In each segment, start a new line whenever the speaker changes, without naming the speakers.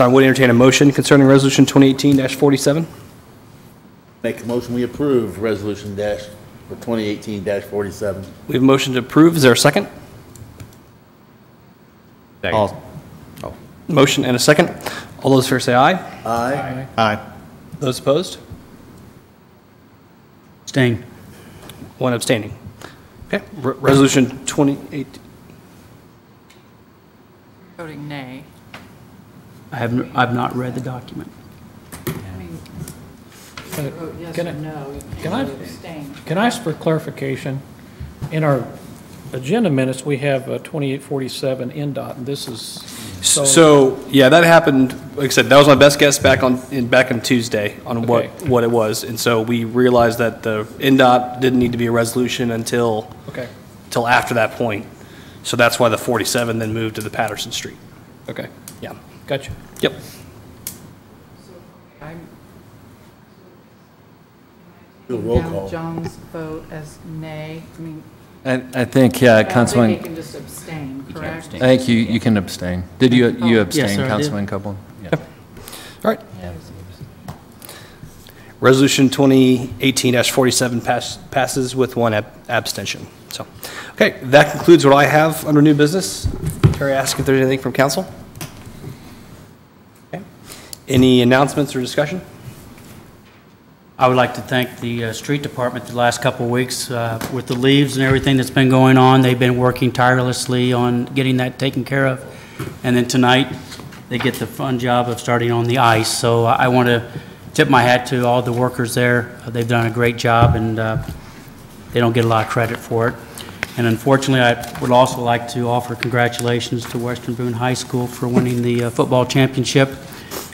I would entertain a motion concerning Resolution 2018-47.
Make a motion, we approve resolution dash, for 2018-47.
We have a motion to approve. Is there a second?
Second.
Motion and a second. All those in favor say aye.
Aye.
Aye.
Those opposed?
Abstain.
One abstaining. Okay, Re- Resolution 28,
Voting nay.
I have, n- I've not read the document.
Vote yes
Can
or
I-
no. You
can I-
can't Abstain.
Can I ask for clarification? In our agenda minutes, we have uh, 2847 NDOT, and this is, so,
so, yeah, that happened, like I said, that was my best guess back on, in- back on Tuesday on what,
Okay.
what it was. And so we realized that the NDOT didn't need to be a resolution until,
okay,
till after that point. So that's why the 47 then moved to the Patterson Street.
okay,
Yeah.
gotcha.
Yep.
I'm-
Do a roll
Now
call.
John's vote as nay, I mean,
I, I think,
I
yeah,
don't think
Councilman, Uh,
he can just abstain, correct?
I think you, you can abstain. Did you, you
Oh.
Yes,
abstain,
sir, I did.
Councilman Copeland? Yeah.
All right. Resolution 2018-47 pass- passes with one ab- abstention. So, okay, that concludes what I have under new business. Terry, ask if there's anything from council? Okay. Any announcements or discussion?
I would like to thank the uh, street department the last couple of weeks uh, with the leaves and everything that's been going on. They've been working tirelessly on getting that taken care of. And then tonight, they get the fun job of starting on the ice. So I want to tip my hat to all the workers there. They've done a great job, and uh, they don't get a lot of credit for it. And unfortunately, I would also like to offer congratulations to Western Boone High School for winning the uh, football championship.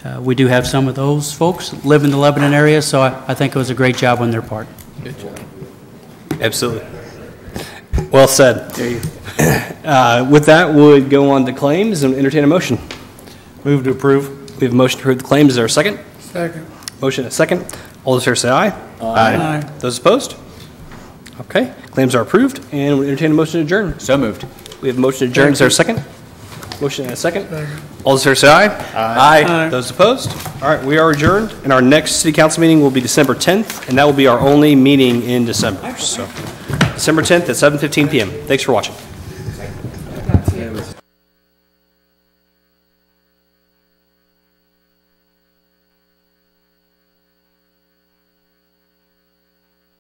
Uh, We do have some of those folks live in the Lebanon area, so I I think it was a great job on their part.
Absolutely. Well said. Uh, With that, we'll go on to claims and entertain a motion.
Move to approve.
We have a motion to approve the claims. Is there a second? Second. Motion and a second. All those in favor say aye.
Aye.
Those opposed? Okay, claims are approved, and we entertain a motion to adjourn.
So moved.
We have a motion to adjourn, is there a second? Motion and a second. All those in favor say aye. Aye. Those opposed? All right, we are adjourned, and our next city council meeting will be December 10th, and that will be our only meeting in December, so. December 10th at 7:15 PM. Thanks for watching.